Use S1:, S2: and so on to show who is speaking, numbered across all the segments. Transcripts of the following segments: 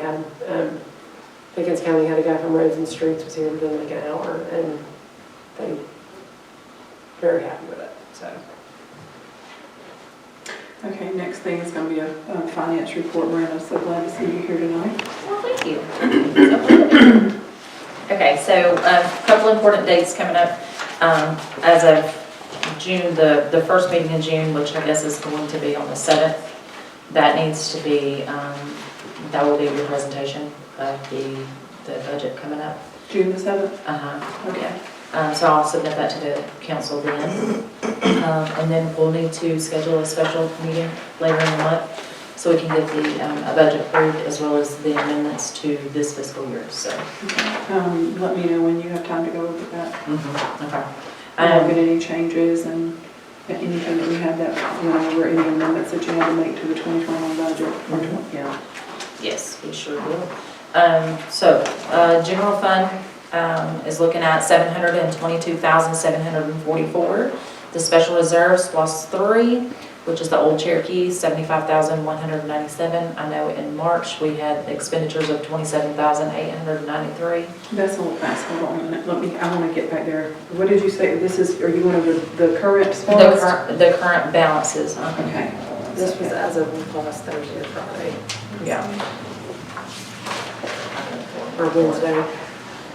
S1: had, um, Pickens County had a guy from Roads and Streets was here within like an hour and they very happy with it, so.
S2: Okay, next thing is gonna be a uh, finance report, Miranda, so glad to see you here tonight.
S3: Well, thank you. Okay, so a couple important dates coming up. Um, As of June, the, the first meeting in June, which I guess is going to be on the 7th, that needs to be, um, that will be your presentation of the, the budget coming up.
S2: June the seventh,
S3: Uh-huh.
S2: okay.
S3: Um, So I'll submit that to the council then. Um, And then we'll need to schedule a special meeting later in the month so we can get the um, a budget approved as well as the amendments to this fiscal year, so.
S2: Um, Let me know when you have time to go over that,
S3: Okay.
S2: and look
S3: Um,
S2: at any changes and anything that we have that, went over any amendments that you had to make to the 2021 budget. or tw- Yeah.
S3: Yes, we sure will. Um, So, uh, general fund um, is looking at 722,744. The special reserves plus three, which is the old Cherokee, 75,197. I know in March, we had expenditures of 27,893.
S2: That's a little fast, hold on a minute, let me, I want to get back there. What did you say, this is, are you one of the the current
S3: The
S2: funds?
S3: current, the current balances, uh,
S2: Okay.
S1: This was as of last Thursday or Friday,
S3: yeah.
S1: or Wednesday. I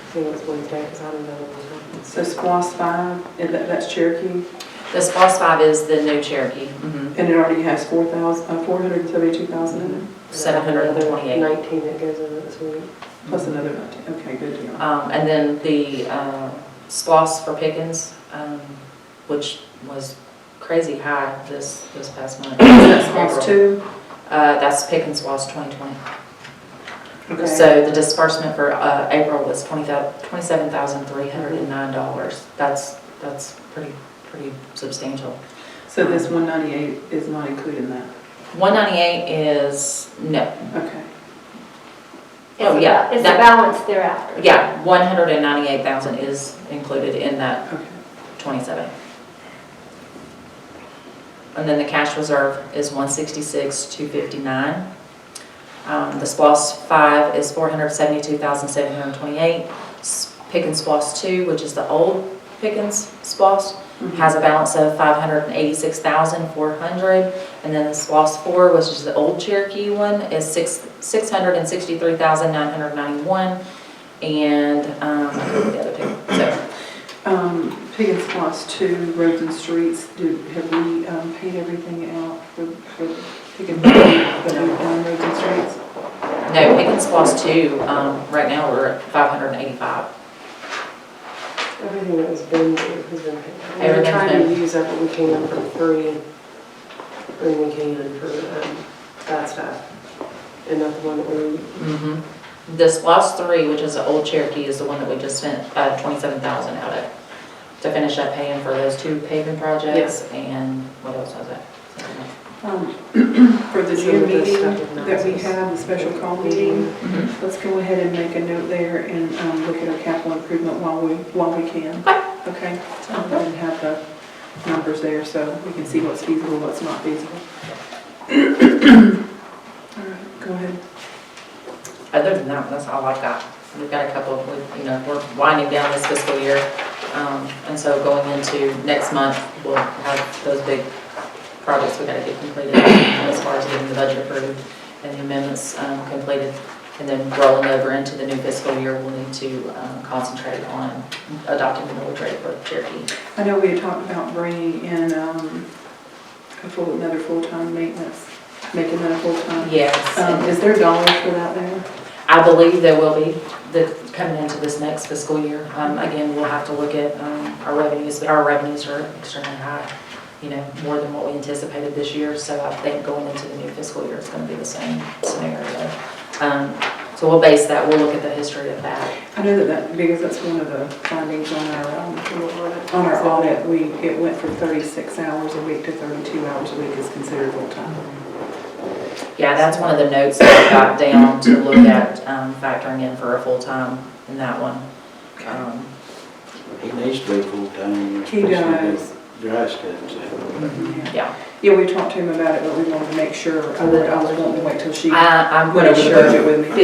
S1: think it was Wednesday, because I don't know what it was.
S2: So SPOS 5, and that- that's Cherokee,
S3: The SPOS 5 is the new Cherokee. Mhm.
S2: and it already has 4,000, uh, 472,000 in it?
S3: Seven hundred and twenty-eight.
S1: Nineteen that goes over this week.
S2: Plus another, nineteen. okay, good deal.
S3: Um, And then the uh, SPOS for Pickens, um, which was crazy high this, this past month.
S2: That's two.
S3: Uh, That's Pickens SPOS 2020.
S2: Okay.
S3: So the disbursement for uh, April was $27,309. That's, that's pretty, pretty substantial.
S2: So this one ninety-eight is not included in that,
S3: 198 is, no,
S2: okay.
S3: Oh,
S4: It's a-
S3: yeah,
S4: It's a
S3: that-
S4: balance thereafter.
S3: yeah, 198,000 is included in that
S2: Okay.
S3: 27. And then the cash reserve is 166, 259. Um, The SPOS 5 is 472,728. S- Pickens SPOS 2, which is the old Pickens SPOS,
S2: Mm-hmm.
S3: has a balance of 586,400. And then the SPOS 4, which is the old Cherokee one, is six 663,991. And um, I forget the other two, so.
S2: Um, Piggins Plus Two, Roads and Streets, do, have we, um, paid everything out for, for Piggins, the new, um, Roads and Streets?
S3: No, Pickens Plus Two, um, right now, we're at five hundred and eighty-five.
S1: Everything that was been, has been paid. We were
S3: Everything's
S1: trying to
S3: been-
S1: use up what we can for free, and bring we can for um, that stuff. And not the one that we,
S3: Mm-hmm. This Plus Three, which is the old Cherokee, is the one that we just spent, uh, twenty-seven thousand out of, to finish up paying for those two paving projects, and what else was it?
S2: Um, For the
S1: Some
S2: June
S1: of this
S2: meeting
S1: stuff is
S2: that we
S1: nonsense.
S2: have, the special call meeting, let's go ahead and make a note there and, um, look at our capital improvement while we, while we can. Okay. And then have the numbers there so we can see what's feasible, what's not feasible. All right, go ahead.
S3: Other than that, that's all I've got. We've got a couple, we, you know, we're winding down this fiscal year, um, and so going into next month, we'll have those big projects we gotta get completed as far as getting the budget approved and the amendments, um, completed. And then rolling over into the new fiscal year, we'll need to, um, concentrate on adopting the military for Cherokee.
S2: I know we had talked about bringing in um, a full, another full-time maintenance, making that a full-time.
S3: Yes.
S2: Um,
S3: and
S2: Is there dollars for that there?
S3: I believe there will be, that coming into this next fiscal year. Um, again, we'll have to look at, um, our revenues, our revenues are extremely high, you know, more than what we anticipated this year, so I think going into the new fiscal year, it's gonna be the same scenario. Um, so we'll base that, we'll look at the history of that.
S2: I know that that, because that's one of the findings on our, um,
S1: on
S2: on our audit, we, it went from 36 hours a week to 32 hours a week is considered full-time.
S3: Yeah, that's one of the notes that I got down to look at, um, factoring in for a full-time in that one. Um,
S5: He needs to be full-time.
S2: He does.
S5: Dry schedule.
S3: yeah,
S2: Yeah, we talked to him about it, but we wanted to make sure, I would, I would want to wait till she
S3: I, I'm
S2: went over
S3: pretty
S2: the
S3: sure.
S2: budget with me.